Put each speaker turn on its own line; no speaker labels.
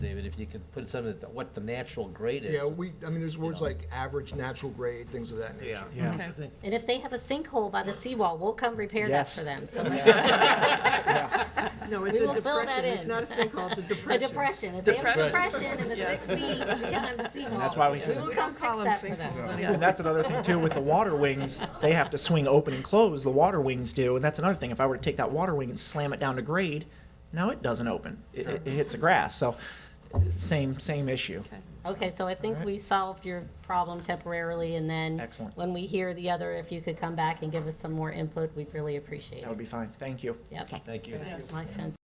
if you could put something, that- what the natural grade is.
Yeah, we, I mean, there's words like average, natural grade, things of that nature.
Yeah.
Yeah.
I think-
And if they have a sinkhole by the seawall, we'll come repair that
Yes.
for them. So
No, it's
We
a
will fill that
depression, it's
in.
not a sinkhole, it's a
a
depression.
depression, if they have a
Depression.
depression in the six feet behind the seawall.
that's why we
We
should-
will come fix
Column
that for them.
sinkholes, I
And
guess.
that's another thing too with the water wings. They have to swing open and close. The water wings do, and that's another thing. If I were to take that water wing and slam it down to grade, now it doesn't open. It, it, it hits the grass. So same same issue.
Okay, so I think we solved your problem temporarily, and then.
Excellent.
When we hear the other, if you could come back and give us some more input, we'd really appreciate
That would
it.
be fine. Thank you.
Yep.
Thank you.
My fence.